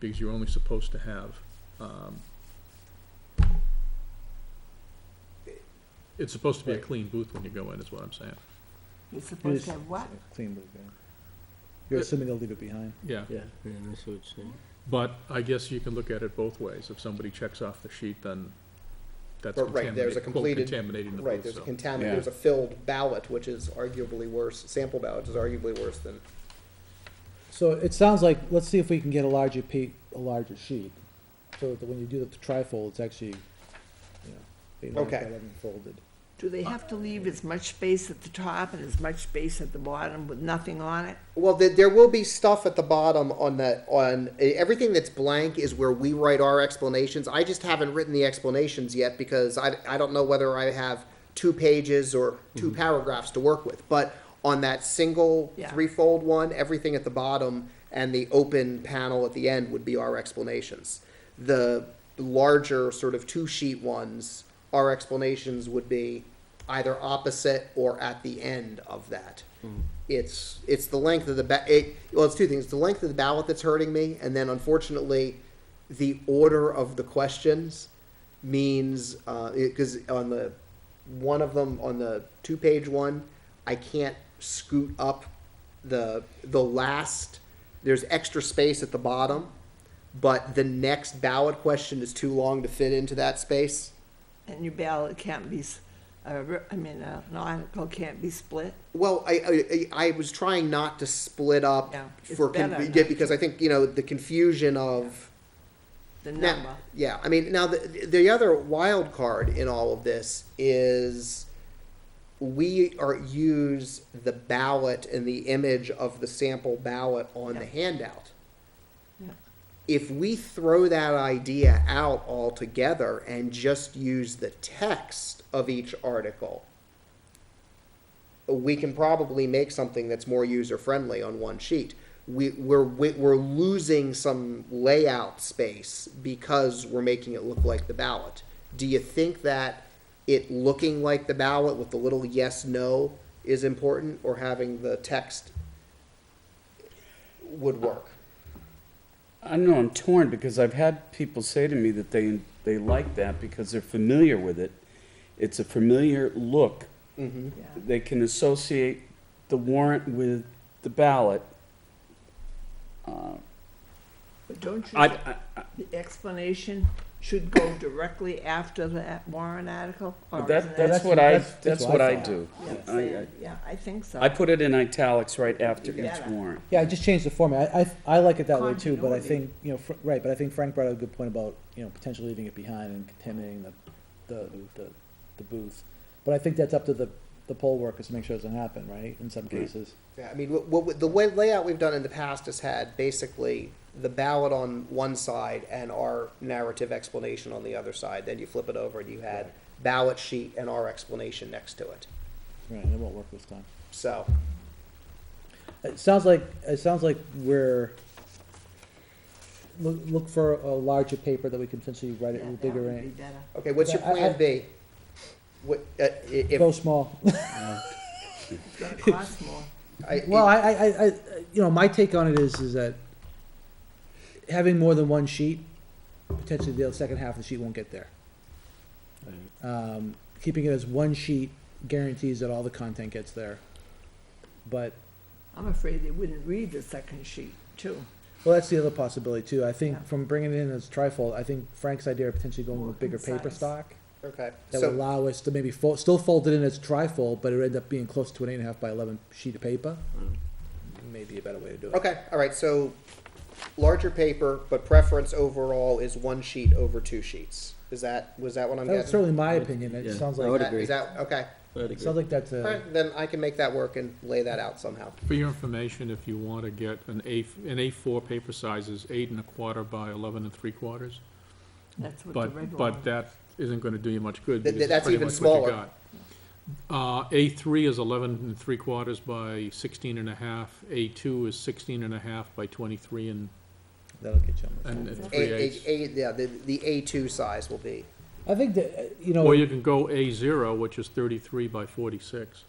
because you're only supposed to have, um, it's supposed to be a Right. clean booth when you go in, is what I'm saying. You're supposed to have what? Clean boot, yeah. You're assuming they'll leave it behind. Yeah, Yeah, yeah, that's what it's saying. but I guess you can look at it both ways. If somebody checks off the sheet, then that's But right, there's a contaminating, quote, completed- contaminating the Right, booth, there's a so. contamin, Yeah. there's a filled ballot, which is arguably worse, sample ballot is arguably worse than, So it sounds like, let's see if we can get a larger pa, a larger sheet, so that when you do the trifold, it's actually, you know, being like Okay. that and folded. Do they have to leave as much space at the top and as much space at the bottom with nothing on it? well, there, there will be stuff at the bottom on the, on, eh, everything that's blank is where we write our explanations. I just haven't written the explanations yet because I, I don't know whether I have two pages or two Mm-hmm. paragraphs to work with. But on that single Yeah. threefold one, everything at the bottom and the open panel at the end would be our explanations. The larger sort of two sheet ones, our explanations would be either opposite or at the end of that. It's, it's the length of the ba, it, well, it's two things, the length of the ballot that's hurting me, and then unfortunately, the order of the questions means, uh, it, cause on the, one of them, on the two-page one, I can't scoot up the, the last, there's extra space at the bottom, but the next ballot question is too long to fit into that space. And your ballot can't be, s- uh, re- I mean, uh, an article can't be split? Well, I, I, I I was trying not to split up Yeah, it's for, con- better yeah, not because I think, you know, the confusion of. The Now- number? Yeah, I mean, now the, the other wild card in all of this is we are, use the ballot and the image of the sample ballot on the Yeah. handout. Yeah. If we throw that idea out altogether and just use the text of each article, we can probably make something that's more user-friendly on one sheet. We, we're, we're losing some layout space because we're making it look like the ballot. Do you think that it looking like the ballot with the little yes, no is important, or having the text would work? I know I'm torn because I've had people say to me that they, they like that because they're familiar with it. It's a familiar look. Mm-hmm. Yeah. They can associate the warrant with the ballot. Uh, But don't you, I, think I, the explanation should go directly after that warrant article? or that, isn't that's that's- what I, that's- that's that's what what I I thought. do. Yeah, I, same. I- Yeah, I think so. I put it in italics right after each Yeah. warrant. Yeah, I just changed the format. I, I, I like it that way too, but I Continuity. think, you know, Fr- right, but I think Frank brought up a good point about, you know, potentially leaving it behind and contaminating the, the, the, the booth. But I think that's up to the, the poll workers to make sure it doesn't happen, right, in some cases? Yeah, I mean, what, what, the way layout we've done in the past has had basically the ballot on one side and our narrative explanation on the other side. Then you flip it over and you had ballot sheet and our explanation next to it. Right, and it won't work this time. So, It sounds like, it sounds like we're, look, look for a larger paper that we can potentially write Yeah, it in that bigger would be ink. better. okay, what's your Yeah, I- plan I- B? What, uh, i- if, Go small. It's gonna cost more. I- Well, I, I, I, I- you know, my take on it is, is that having more than one sheet, potentially the second half of the sheet won't get there. Um, keeping it as one sheet guarantees that all the content gets there. But, I'm afraid they wouldn't read the second sheet, too. well, that's the other possibility too. I Yeah. think from bringing it in as trifold, I think Frank's idea of potentially going with More bigger paper concise. stock okay, that would so, allow us to maybe fold, still fold it in as trifold, but it would end up being close to an eight and a half by eleven sheet of paper. Maybe a better way to do it. Mm-hmm. okay, all right, so larger paper, but preference overall is one sheet over two sheets. Is that, was that what I'm That was getting? certainly my opinion. It Yeah. sounds I like would That- agree. Is that, okay, I'd agree. Sounds like uh, that's all a, right, then I can make that work and lay that out somehow. For your information, if you want to get an A, an A4 paper size is eight and a quarter by 11 and three quarters. That's what the But, regular but one. that isn't gonna do you much good. Th- because th- that's it's pretty even much what you smaller. got. Uh, A three is eleven and three quarters by sixteen and a half, A two is sixteen and a half by twenty-three and, that'll get you on and and A, three a, eighths. a, yeah, the, the A2 size will be. I think that, uh, you know, Or you can go A zero, which is thirty-three by forty-six.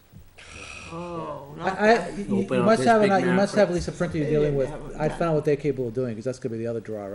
Oh, I, not I, that. you you Open up must this have, big an- you map must have at least a printer you're They dealing didn't with. have a I map. found out what they're capable of doing, because that's gonna be the other draw, right?